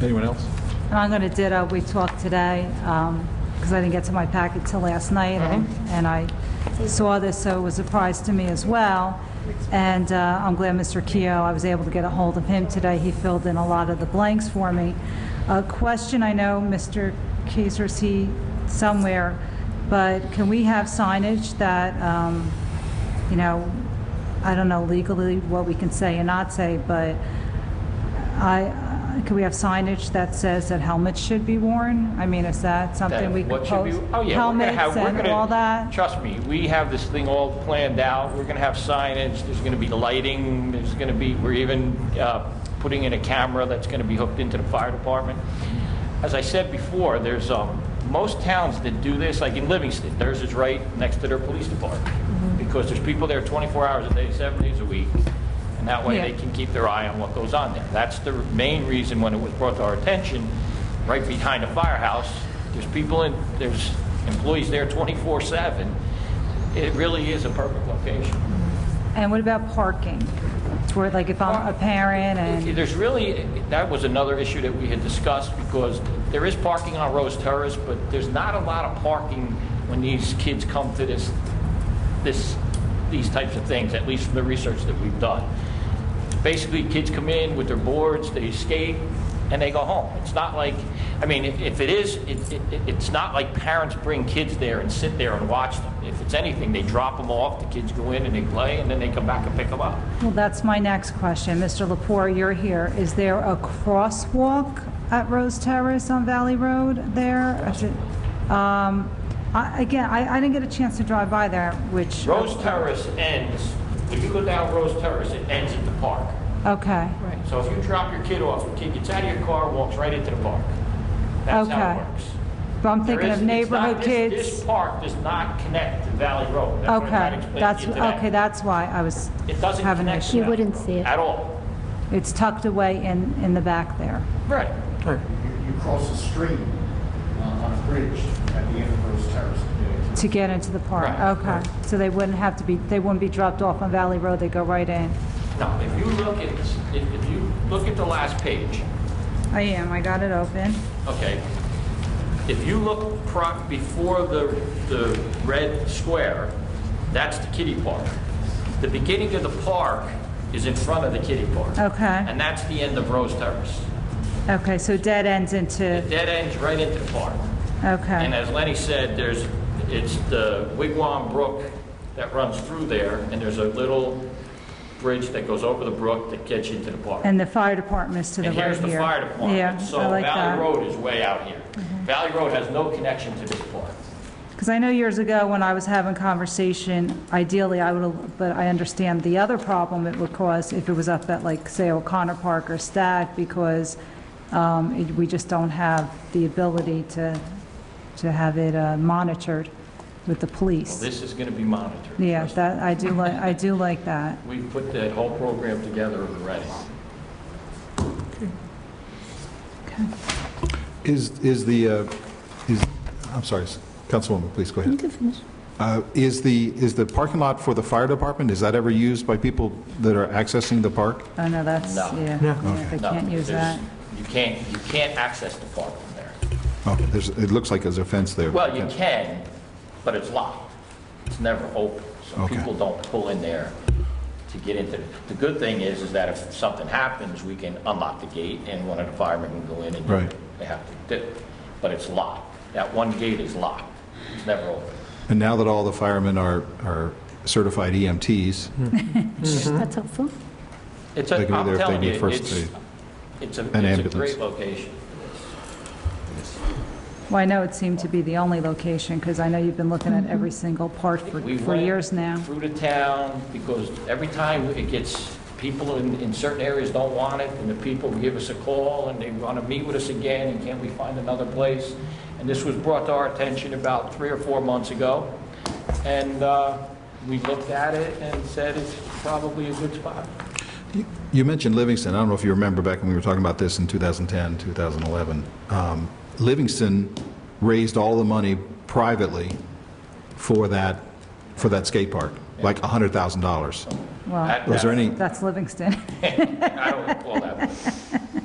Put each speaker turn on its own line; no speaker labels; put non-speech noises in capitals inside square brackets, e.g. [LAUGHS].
Anyone else?
And I'm going to ditto, we talked today, because I didn't get to my packet till last night, and- and I saw this, so it was a surprise to me as well. And uh, I'm glad Mr. Keough, I was able to get a hold of him today, he filled in a lot of the blanks for me. A question, I know Mr. Kaiser's he somewhere, but can we have signage that, um, you know, I don't know legally what we can say and not say, but I, could we have signage that says that helmets should be worn? I mean, is that something we could
What should be-
post?
Oh, yeah, we're gonna have,
Helmets
we're
and all
gonna,
that?
trust me, we have this thing all planned out. We're gonna have signage, there's gonna be lighting, there's gonna be, we're even uh, putting in a camera that's gonna be hooked into the fire department. As I said before, there's, um, most towns that do this, like in Livingston, theirs is right next to their police department.
Mm-hmm.
Because there's people there 24 hours a day, seven days a week, and that way
Yeah.
they can keep their eye on what goes on there. That's the main reason when it was brought to our attention, right behind the firehouse, there's people in, there's employees there 24/7. It really is a perfect location.
And what about parking? Where, like, if I'm a parent and,
There's really, that was another issue that we had discussed because there is parking on Rose Terrace, but there's not a lot of parking when these kids come to this, this, these types of things, at least from the research that we've done. Basically, kids come in with their boards, they skate, and they go home. It's not like, I mean, if if it is, it- it- it's not like parents bring kids there and sit there and watch them. If it's anything, they drop them off, the kids go in and they play, and then they come back and pick them up.
well, that's my next question. Mr. Lepore, you're here. Is there a crosswalk at Rose Terrace on Valley Road there? Is it- um, I- Again, I I didn't get a chance to drive by there, which...
Rose Terrace ends, when you go down Rose Terrace, it ends at the park.
Okay.
So if you drop your kid off, your kid gets out of your car, walks right into the park. That's how
Okay.
it works.
But I'm
There
thinking
is-
of
it's not-
neighborhood
this-
kids.
This park does not connect to Valley Road. That's what I'm trying
Okay,
to explain to
that's,
you today.
okay, that's why I was
It doesn't
having an
connect to
issue.
You
Valley
wouldn't
Road
see it.
At all.
It's tucked away in, in the back there.
Right.
You you cross a stream uh, on a bridge at the end of Rose Terrace.
To get into the park,
Right,
okay. So they wouldn't have to be, they wouldn't be dropped off on Valley Road, they go right in.
Now, if you look at, this- if if you look at the last page,
I am, I got it open.
Okay. If you look pro- before the, the red square, that's the kiddie park. The beginning of the park is in front of the kiddie park.
Okay,
And that's the end of Rose Terrace.
okay, so dead ends
It
into,
dead ends right into the park. And
okay,
as Lenny said, there's, it's the Wigwam Brook that runs through there, and there's a little bridge that goes over the brook that gets you into the park.
and the fire department is to the
And
right here.
here's the fire
Yeah,
department. So
I like
Valley
that. Mm-hmm.
Road is way out here. Valley Road has no connection to this park.
Because I know years ago, when I was having conversation, ideally, I would, but I understand the other problem it would cause if it was up at, like, say, O'Connor Park or Stack, because um, it- we just don't have the ability to, to have it uh, monitored with the
Well,
police.
This is going to be monitored.
Yeah, that, I do like, I do like that.
We've put that whole program together already.
Is, is the, uh, is, I'm sorry, s- Councilwoman, please go
You
ahead.
can finish.
Uh, Is the, is the parking lot for the fire department, is that ever used by people that are accessing the park?
Oh, no, that's,
No.
yeah, yeah, they
No,
can't use
there's-
that.
You can't, you can't access the park from there.
Oh, there's, it looks like there's a fence there.
Well, you can, but it's locked. It's never open, so
Okay.
people don't pull in there to get into it. The good thing is, is that if something happens, we can unlock the gate and one of the firemen can go in and do
Right.
what they have to do. But it's locked. That one gate is locked. It's never open.
And now that all the firemen are, are certified E EMTs,
That's helpful.
It's,
They
a
can be there
am
if they
telling you,
need first
it's,
aid.
it's a,
And
it's a
ambulance.
great location.
Well, I know it seemed to be the only location, because I know you've been looking at every single part for,
We
for
went
years now.
Through the town, because every time it gets, people in, in certain areas don't want it, and the people give us a call, and they want to meet with us again, and can't we find another place? And this was brought to our attention about three or four months ago, and uh, we looked at it and said it's probably a good spot.
You- You mentioned Livingston. I don't know if you remember back when we were talking about this in 2010, 2011. Um, Livingston raised all the money privately for that, for that skate park, like $100,000.
Well,
That-
Was there any,
that's Livingston. [LAUGHS]
I don't recall that.